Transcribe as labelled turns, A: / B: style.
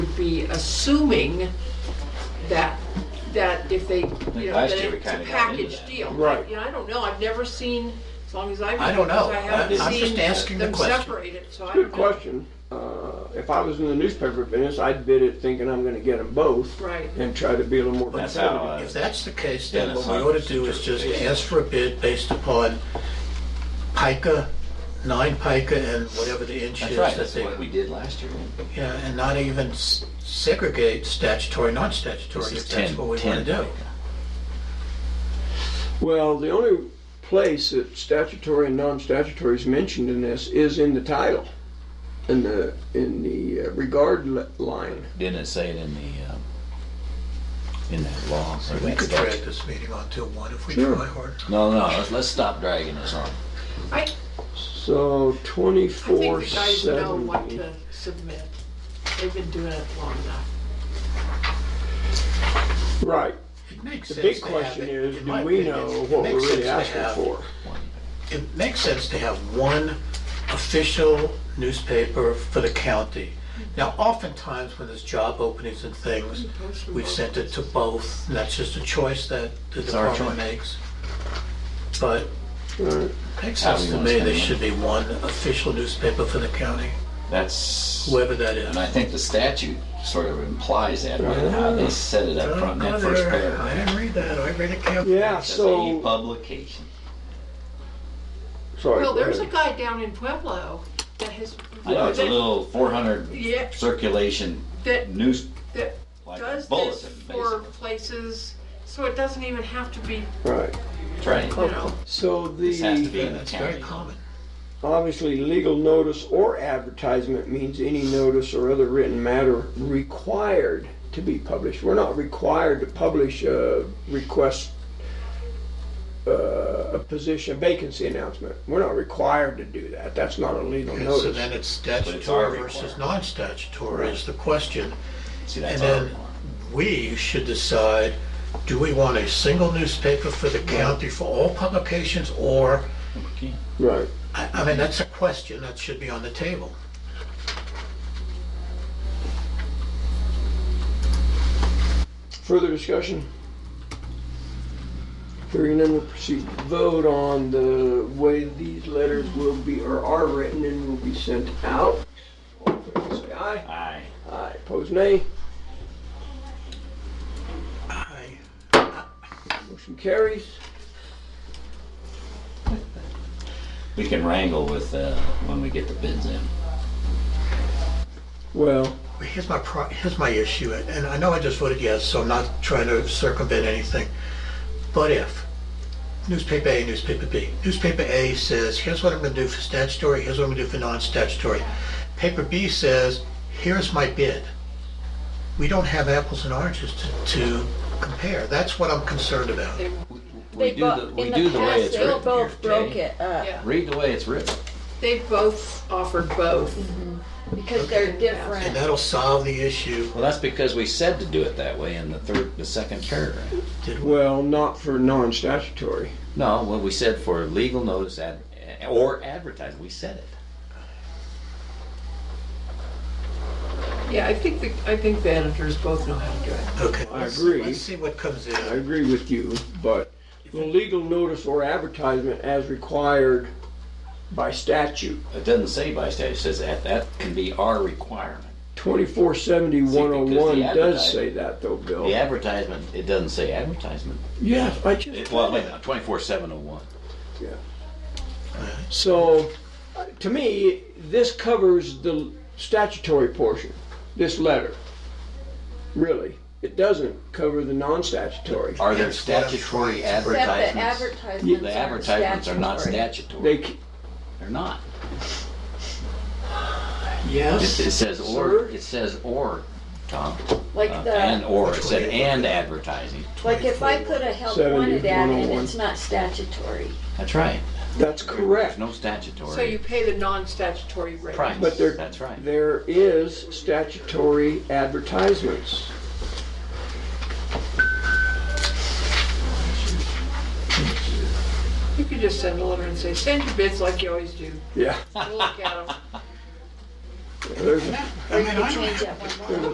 A: be assuming that, that if they, you know,
B: last
A: that
B: year we
A: it's a
B: kinda got into
A: package
B: that.
A: deal.
C: Right.
A: You know, I don't know, I've never seen, as long as I've.
B: I don't know.
A: I
B: I'm
A: haven't
B: just
A: seen
B: asking the
A: them
B: question.
A: separated, so I
C: Good
A: don't know.
C: question. Uh, If I was in the newspaper business, I'd bid it thinking I'm gonna get them both.
A: Right.
C: And try to be a little more
B: That's how,
C: competitive.
B: uh,
D: If that's the case, then what we
B: Dennis,
D: ought to do is just ask for a bid based upon pica, nine pica, and whatever the inch
B: that's
D: is
B: right,
D: that
B: that's
D: they,
B: what we did last year.
D: yeah, and not even s- segregate statutory, non-statutory,
B: This is
D: if that's
B: 10
D: what we
B: 10
D: want to do.
C: Well, the only place that statutory and non-statutory is mentioned in this is in the title, in the, in the uh, regard li- line.
B: Didn't it say it in the, um, in that law? or
D: We
B: that
D: could
B: statute?
D: drag this meeting on till one if we
C: Sure.
D: try hard.
B: No, no, let's, let's stop dragging this on.
A: I,
C: So
A: I think
C: twenty-four
A: the guys know what
C: seventy.
A: to submit. They've been doing it long enough.
C: Right.
D: It makes
C: The
D: sense
C: big
D: to have
C: question
D: it-
C: is,
D: in
C: do
D: my
C: we
D: opinion,
C: know
D: it
C: what we're
D: makes
C: really
D: sense to
C: asking
D: have-
C: for?
D: It makes sense to have one official newspaper for the county. Now, oftentimes when there's job openings and things, we've sent it to both, and that's just a choice that the
B: our
D: department
B: choice.
D: makes. But
C: Right.
D: it makes
B: How
D: sense
B: we
D: to
B: wanna
D: me,
B: spend
D: there
B: the
D: should be one official newspaper for the county,
B: That's,
D: whoever that is.
B: and I think the statute sort of implies that, right, how they set it up front in that first
D: I
B: paragraph.
D: didn't read that, I read it carefully.
C: Yeah,
B: It says a E
C: so,
B: publication.
C: sorry.
A: Well,
C: go
A: there's a
C: ahead.
A: guy down in Pueblo that has.
B: I know it's a
A: that-
B: little four hundred
A: Yeah.
B: circulation
A: That
B: news,
A: that
B: like a
A: does this
B: bulletin,
A: for
B: basically.
A: places, so it doesn't even have to be,
C: Right.
B: Right.
A: you know,
C: So
B: This has to
C: the,
B: be in the
D: That's very
B: county.
D: common.
C: obviously, legal notice or advertisement means any notice or other written matter required to be published. We're not required to publish a request, uh, a position, vacancy announcement. We're not required to do that. That's not a legal
D: Okay, So
C: notice.
D: then it's
B: it's our
D: statutory versus
B: requirement.
D: non-statutory is the question.
B: See,
D: And
B: that's our
D: then
B: requirement.
D: we should decide, do we want a single newspaper for the county for all publications? Or,
C: Right.
D: I, I mean, that's a question that should be on the table.
C: Further discussion? Hearing none, we'll proceed to vote on the way these letters will be, or are written and will be sent out. All in favor, Say aye.
B: Aye.
C: Aye, pose nay.
D: I,
C: Motion carries.
B: We can wrangle with, uh, when we get the bids in.
C: Well,
D: here's my, pro- here's my issue, and I know I just voted yes, so I'm not trying to circumvent anything. But if, newspaper A, newspaper B, newspaper A says, here's what I'm gonna do for statutory, here's what I'm gonna do for non-statutory. Paper B says, here's my bid. We don't have apples and oranges to, to compare. That's what I'm concerned about.
B: We
E: They
B: do
E: bo-
B: the, we
E: in
B: do
E: the
B: the way
E: past,
B: it's
E: they
B: written
E: both
B: here,
E: broke
B: Jay.
E: it up.
A: yeah,
B: Read the way it's written.
A: they both offered both.
E: Because they're
D: And
E: different.
D: that'll solve the issue.
B: Well, that's because we said to do it that way in the third, the second paragraph.
D: Did we?
C: well, not for non-statutory.
B: No, well, we said for legal notice ad, or advertising, we said it.
A: Yeah, I think, the- I think the editors both know how to do it.
D: Okay.
C: I
D: let's-
C: agree.
D: Let's see what comes
C: I
D: in.
C: agree with you, but the legal notice or advertisement as required by statute,
B: It doesn't say by statute, it says that, that can be our requirement.
C: twenty-four seventy one oh
B: See, because
C: one
B: the
C: does
B: advertise-
C: say that though, Bill.
B: The advertisement, it doesn't say advertisement.
C: Yes, I
B: It-
C: just.
B: Well, wait, no, twenty-four seven oh one.
C: So, uh, to me, this covers the statutory portion, this letter. Really, it doesn't cover the non-statutory.
B: Are there
D: That's what I'm trying
B: statutory
D: to- Except the
E: Except the
B: advertisements?
E: advertisements.
B: The advertisements are not statutory.
C: They, c-
B: They're not. It
D: Yes.
B: it says or,
C: Sir?
B: it says or, Tom. Uh,
E: Like
B: And
E: the,
B: or, it
D: Which
B: said
D: one?
B: and advertising.
E: like if I put a help
C: 70,
E: wanted ad in,
C: 101.
E: it's not statutory.
B: That's right.
C: that's
B: There's
C: correct.
B: no
A: So you
B: statutory
A: pay the non-statutory rate.
B: price.
C: But there-
B: That's right.
C: There is statutory advertisements.
A: You could just send a letter and say, send your bids like you always do.
C: Yeah,
A: We'll look at them.
C: there's a
D: I mean,
E: You
D: I
E: change
D: don't-
E: that one line.